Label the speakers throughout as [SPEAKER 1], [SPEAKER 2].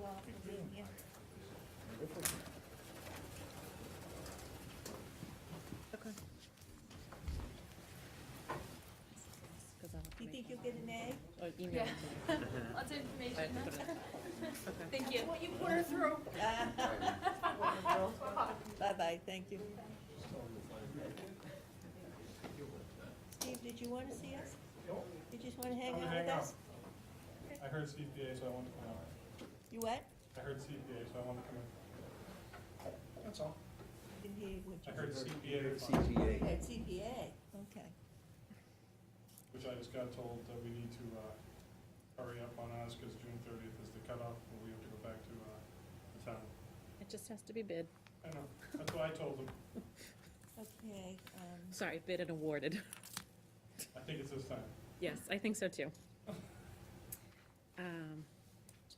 [SPEAKER 1] all convenient.
[SPEAKER 2] Okay.
[SPEAKER 1] Do you think you'll get an A?
[SPEAKER 2] Or email
[SPEAKER 3] Yeah.
[SPEAKER 2] it to me.
[SPEAKER 3] Lots of
[SPEAKER 2] I
[SPEAKER 3] information.
[SPEAKER 2] put it in. Okay.
[SPEAKER 3] Thank you. What you pour through.
[SPEAKER 1] Bye-bye, thank you. Steve, did you want to see us?
[SPEAKER 4] Nope.
[SPEAKER 1] You just want to hang
[SPEAKER 4] I'm gonna
[SPEAKER 1] out with
[SPEAKER 4] hang out.
[SPEAKER 1] us?
[SPEAKER 4] I heard CPA, so I wanted to come out.
[SPEAKER 1] You what?
[SPEAKER 4] I heard CPA, so I wanted to come in. That's all.
[SPEAKER 1] Didn't hear what
[SPEAKER 4] I
[SPEAKER 1] you
[SPEAKER 4] heard CPA,
[SPEAKER 1] You
[SPEAKER 5] CTA.
[SPEAKER 1] had CPA, okay.
[SPEAKER 4] which I just got told that we need to uh, hurry up on ours because June thirtieth is the cutoff, and we have to go back to uh, the town.
[SPEAKER 2] It just has to be bid.
[SPEAKER 4] I know, that's what I told them.
[SPEAKER 1] Okay, um,
[SPEAKER 2] Sorry, bid and awarded.
[SPEAKER 4] I think it's this time.
[SPEAKER 2] Yes, I think so too. Um,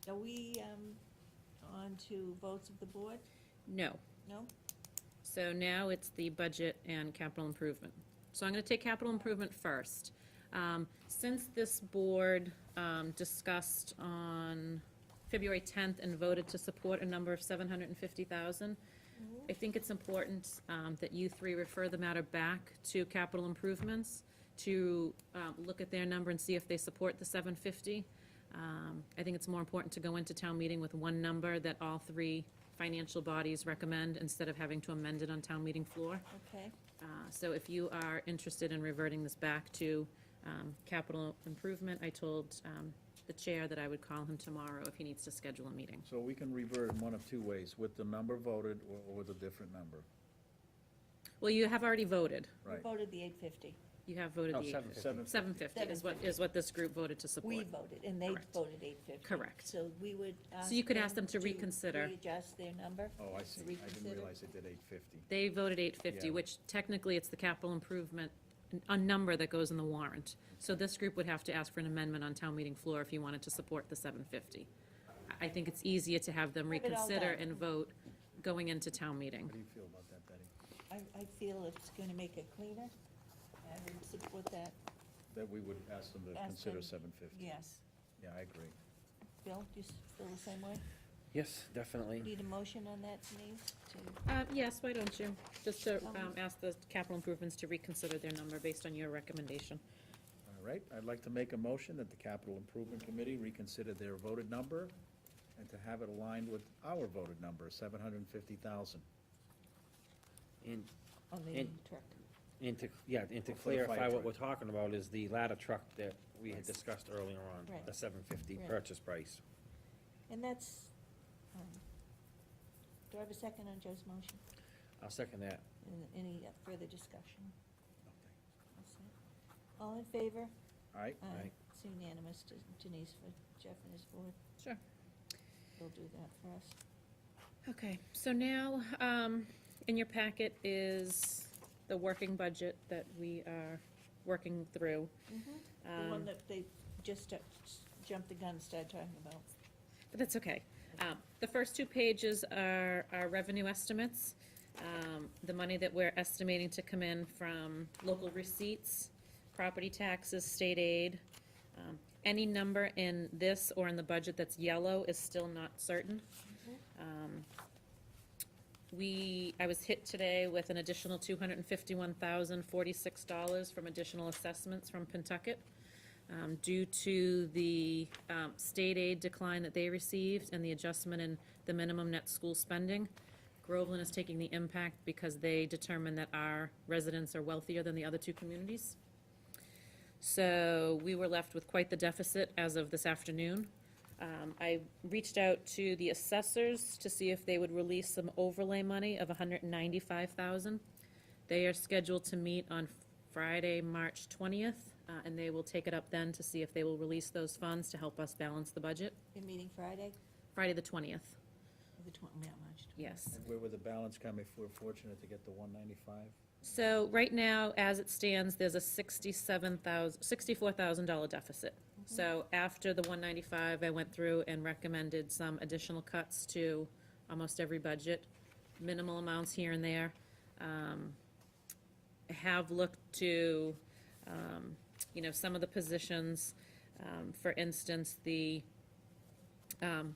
[SPEAKER 1] are we, um, on to votes of the board?
[SPEAKER 2] no.
[SPEAKER 1] No?
[SPEAKER 2] So now it's the budget and capital improvement. So I'm going to take capital improvement first. Um, Since this board um, discussed on February 10th and voted to support a number of 750,000, I think it's important um, that you three refer the matter back to capital improvements to um, look at their number and see if they support the 750. Um, I think it's more important to go into town meeting with one number that all three financial bodies recommend instead of having to amend it on town meeting floor.
[SPEAKER 1] Okay,
[SPEAKER 2] Uh, So if you are interested in reverting this back to um, capital improvement, I told um, the chair that I would call him tomorrow if he needs to schedule a meeting.
[SPEAKER 5] So we can revert in one of two ways, with the number voted or- or with a different number,
[SPEAKER 2] Well, you have already voted.
[SPEAKER 1] we
[SPEAKER 5] right?
[SPEAKER 1] voted the eight fifty.
[SPEAKER 2] You have voted
[SPEAKER 6] No,
[SPEAKER 2] the
[SPEAKER 6] Oh, seven fifty.
[SPEAKER 5] Seven,
[SPEAKER 2] 750 is what, is what this group voted to support.
[SPEAKER 1] We voted, and they
[SPEAKER 2] Correct.
[SPEAKER 1] voted eight fifty.
[SPEAKER 2] Correct.
[SPEAKER 1] So we would ask.
[SPEAKER 2] you could ask them to reconsider.
[SPEAKER 1] Readjust their number?
[SPEAKER 5] oh, I see, I didn't
[SPEAKER 1] Reconsider.
[SPEAKER 5] realize it did eight fifty.
[SPEAKER 2] They voted eight fifty,
[SPEAKER 5] Yeah.
[SPEAKER 2] which technically it's the capital improvement, a number that goes in the warrant. So this group would have to ask for an amendment on town meeting floor if you wanted to support the seven fifty. I think it's easier to have them
[SPEAKER 1] Have it all
[SPEAKER 2] reconsider
[SPEAKER 1] done.
[SPEAKER 2] and vote going into town meeting.
[SPEAKER 5] How do you feel about that, Betty?
[SPEAKER 1] I, I feel it's gonna make it cleaner. I would support that,
[SPEAKER 5] That we would ask them to
[SPEAKER 1] Ask
[SPEAKER 5] consider
[SPEAKER 1] them.
[SPEAKER 5] seven fifty?
[SPEAKER 1] yes.
[SPEAKER 5] Yeah, I agree.
[SPEAKER 1] Bill, do you s- feel the same way?
[SPEAKER 6] Yes, definitely.
[SPEAKER 1] Need a motion on that, Denise, to,
[SPEAKER 2] Uh, yes, why don't you? Just to,
[SPEAKER 1] Um,
[SPEAKER 2] um, ask the capital improvements to reconsider their number based on your recommendation.
[SPEAKER 5] All right, I'd like to make a motion that the Capital Improvement Committee reconsider their voted number and to have it aligned with our voted number, seven hundred and fifty thousand.
[SPEAKER 6] And,
[SPEAKER 1] on the
[SPEAKER 6] And-
[SPEAKER 1] truck?
[SPEAKER 6] and to, yeah, and to
[SPEAKER 5] For the fire
[SPEAKER 6] clarify what
[SPEAKER 5] truck.
[SPEAKER 6] we're talking about is the ladder truck that we had discussed earlier on,
[SPEAKER 1] Right.
[SPEAKER 6] the seven fifty
[SPEAKER 1] Right.
[SPEAKER 6] purchase price.
[SPEAKER 1] And that's, um, do I have a second on Joe's motion?
[SPEAKER 6] I'll second that.
[SPEAKER 1] An- Any further discussion? That's it. All in favor?
[SPEAKER 5] All right,
[SPEAKER 1] Aye.
[SPEAKER 6] Aye.
[SPEAKER 1] It's unanimous, De- Denise, for Jeff and his board,
[SPEAKER 2] Sure.
[SPEAKER 1] they'll do that for us.
[SPEAKER 2] Okay, so now, um, in your packet is the working budget that we are working through.
[SPEAKER 1] The one
[SPEAKER 2] Um,
[SPEAKER 1] that they just uh, s- jumped the gun, and started talking about.
[SPEAKER 2] But that's okay. Um, The first two pages are our revenue estimates, um, the money that we're estimating to come in from local receipts, property taxes, state aid. Um, Any number in this or in the budget that's yellow is still not certain. Um, We, I was hit today with an additional $251,046 from additional assessments from Pentucket um, due to the um, state aid decline that they received and the adjustment in the minimum net school spending. Groveland is taking the impact because they determine that our residents are wealthier than the other two communities. So we were left with quite the deficit as of this afternoon. Um, I reached out to the assessors to see if they would release some overlay money of hundred and ninety-five thousand. They are scheduled to meet on Friday, March 20th, uh, and they will take it up then to see if they will release those funds to help us balance the budget.
[SPEAKER 1] They're meeting Friday,
[SPEAKER 2] Friday, the 20th,
[SPEAKER 1] the twen- yeah, March twen-
[SPEAKER 2] yes.
[SPEAKER 5] and where would the balance come if we're fortunate to get the one ninety-five?
[SPEAKER 2] So right now, as it stands, there's a $67,000, $64,000 deficit. So after the 195, I went through and recommended some additional cuts to almost every budget, minimal amounts here and there. Um, Have looked to, um, you know, some of the positions, um, for instance, the um,